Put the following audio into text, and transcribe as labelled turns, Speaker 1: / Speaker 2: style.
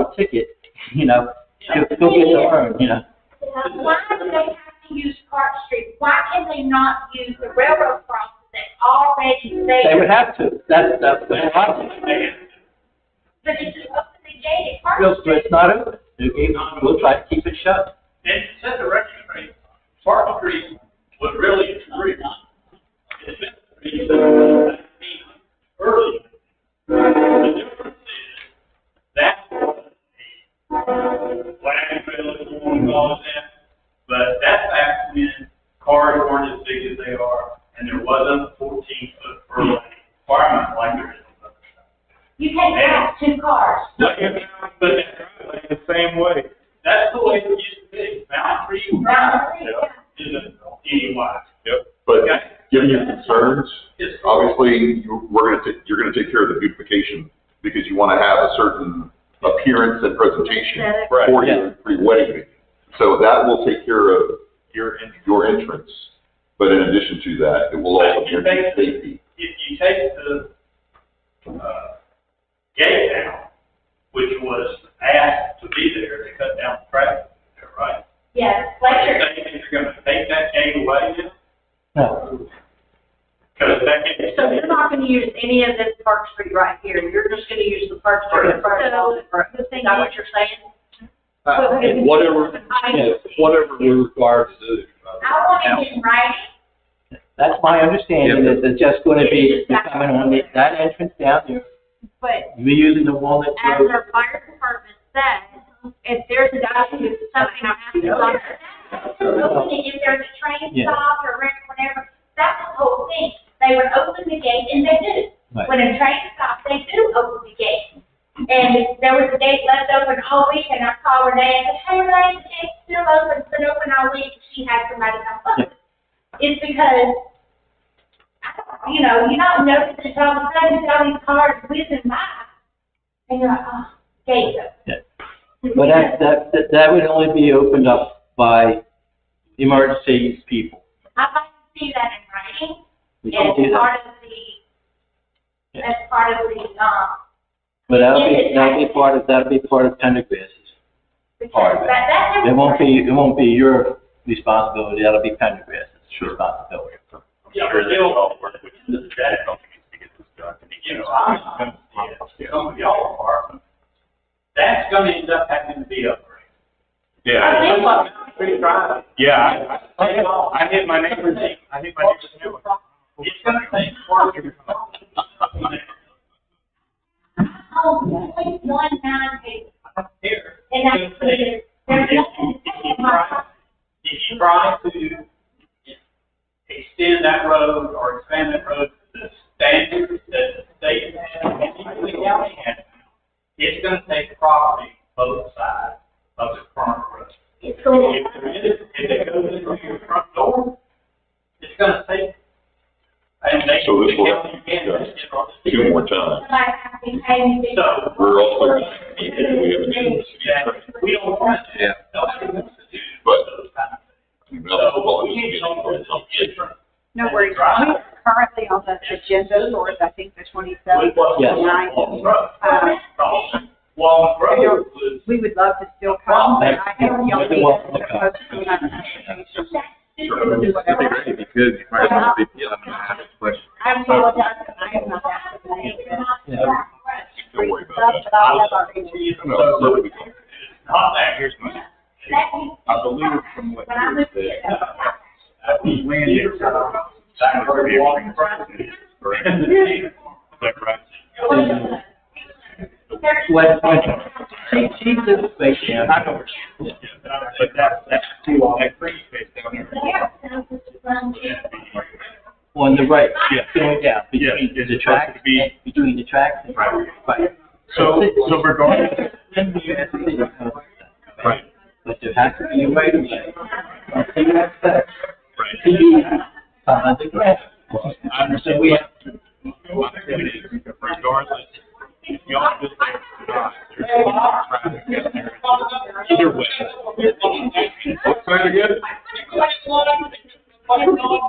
Speaker 1: a ticket, you know, she'll still get the room, you know.
Speaker 2: Why do they have to use Park Street? Why can they not use the railroad crossing that's already
Speaker 1: They would
Speaker 2: there?
Speaker 1: have to, that's, that's the problem.
Speaker 2: But if you open the gate at Park
Speaker 1: Feels, but
Speaker 2: Street,
Speaker 1: it's not open, They'll keep- we'll try to keep it shut.
Speaker 3: And to set the record straight, Park Street was really free. Early. The difference is, that was a flag trail, if you want to call it that, but that's back when cars weren't as big as they are, and there wasn't fourteen foot per lane requirement like there is.
Speaker 2: you can't pass two cars.
Speaker 3: But it's the same way. That's the way it used to be, Mount Free Drive, isn't anyway.
Speaker 4: Yep. But given your concerns,
Speaker 3: Yes.
Speaker 4: obviously, you- we're gonna, ta- you're gonna take care of the beautification because you wanna have a certain appearance and presentation
Speaker 5: Aesthetic.
Speaker 1: Right.
Speaker 4: for
Speaker 1: Yeah.
Speaker 4: your pre-wedding. meeting. So that will take care of
Speaker 3: You're in.
Speaker 4: your entrance. But in addition to that, it will also guarantee safety.
Speaker 3: If you take the, uh, gate down, which was asked to be there, they cut down the traffic there, right?
Speaker 2: Yes,
Speaker 3: You're
Speaker 2: Fletcher,
Speaker 3: thinking they're gonna take that gate away now?
Speaker 1: No,
Speaker 3: Cause that gate.
Speaker 5: So you're not gonna use any of this Park Street right here, you're just gonna use the Park Street in front of all the road. Is that what you're saying?
Speaker 6: Uh, And whatever,
Speaker 5: I
Speaker 6: you know, whatever we're required to do.
Speaker 2: I want it in writing.
Speaker 1: that's my understanding, is it's just gonna be, you're coming on the- that entrance down there,
Speaker 7: But
Speaker 1: you're using the walnut
Speaker 7: as
Speaker 1: road.
Speaker 2: uh,
Speaker 7: our fire department said, if there's a document, something happens on it.
Speaker 2: If there's a train
Speaker 1: Yeah.
Speaker 2: stop or wreck, whatever, that's the whole thing. They would open the gate and they do.
Speaker 1: Right.
Speaker 2: When a train stops, they do open the gate. And there was a gate left open all week and I called Renee and said, hey, Renee, the gate's still open, it's been open all week. She had somebody come look. It's because, I don't- you know, you're not noticing all of a sudden, all these cars whizzing by. And you're like, oh, gate's
Speaker 1: Yeah.
Speaker 2: open.
Speaker 1: But that, that, that- that would only be opened up by emergency people.
Speaker 2: I'd like to see that in writing.
Speaker 1: We
Speaker 2: as
Speaker 1: can't do that,
Speaker 2: part of the, as part of the, um,
Speaker 1: but that'll
Speaker 2: it
Speaker 1: be,
Speaker 2: is-
Speaker 1: that'll be part of, that'll be part of Pendergrass's. Part
Speaker 2: because
Speaker 1: of it.
Speaker 2: that, that.
Speaker 1: It won't be, it won't be your responsibility, that'll be Pendergrass's responsibility.
Speaker 3: Yeah, but they'll, which is that, you know, I'm gonna see it, some of y'all apartments. That's gonna end up having to be upgraded.
Speaker 2: I think-
Speaker 4: Yeah,
Speaker 3: I hit my neighbor's, I hit my neighbor's new one. It's gonna take work.
Speaker 2: Oh, it's like one nine paper,
Speaker 3: Here.
Speaker 2: and that's, there's nothing.
Speaker 3: If you try, if you try to extend that road or expand that road to the standard that the state has, and even the county has, it's gonna take property both sides of the current road.
Speaker 2: It's going
Speaker 3: If there is, if it goes into your front door, it's gonna take. And they,
Speaker 4: So
Speaker 3: the
Speaker 4: this will-
Speaker 3: county can,
Speaker 4: two more times.
Speaker 2: somebody has to pay me.
Speaker 3: So,
Speaker 4: We're also, we have a new
Speaker 3: yeah, we don't want to.
Speaker 4: Yeah.
Speaker 3: Nobody wants to do
Speaker 4: But-
Speaker 3: those kinds of things.
Speaker 4: municipal conversation.
Speaker 5: No worries, we are currently on the agenda for, I think, the twenty-seventh.
Speaker 1: Yes.
Speaker 5: Uh,
Speaker 3: Long road was,
Speaker 5: we would love to still come, but I have y'all
Speaker 1: You're welcome to come.
Speaker 5: meeting.
Speaker 6: It'd be great if you could, you might as well be, yeah, I mean, I have a question.
Speaker 5: I apologize, because I have not asked the name.
Speaker 1: Yeah.
Speaker 4: Don't worry about
Speaker 5: Stuff
Speaker 4: that.
Speaker 5: that I have already.
Speaker 4: No, it's really good.
Speaker 3: not that, here's my.
Speaker 6: I believe from what
Speaker 2: When I
Speaker 6: you
Speaker 2: moved
Speaker 6: said,
Speaker 2: here, that was not-
Speaker 3: That was
Speaker 6: land
Speaker 3: years
Speaker 6: is-
Speaker 3: ago. That road long road. Is that right?
Speaker 1: When, when, she, she lives right there.
Speaker 3: I know where she is. But that, that's too long. That green space down there.
Speaker 1: On the right,
Speaker 3: Yeah.
Speaker 1: going down,
Speaker 3: Yeah,
Speaker 1: between
Speaker 3: it's
Speaker 1: the
Speaker 3: supposed
Speaker 1: tracks,
Speaker 3: to be-
Speaker 1: and- between the tracks. and-
Speaker 3: Right.
Speaker 1: Right.
Speaker 3: So, so regardless,
Speaker 1: Then you have to think about that.
Speaker 3: Right.
Speaker 1: But there has to be a right of way. So you have to,
Speaker 3: Right.
Speaker 1: to be on the grass.
Speaker 3: I understand.
Speaker 1: So we have,
Speaker 3: Regardless, if y'all do that or not, there's a lot of traffic down there. Either way.
Speaker 4: Let's try it again.
Speaker 2: Well,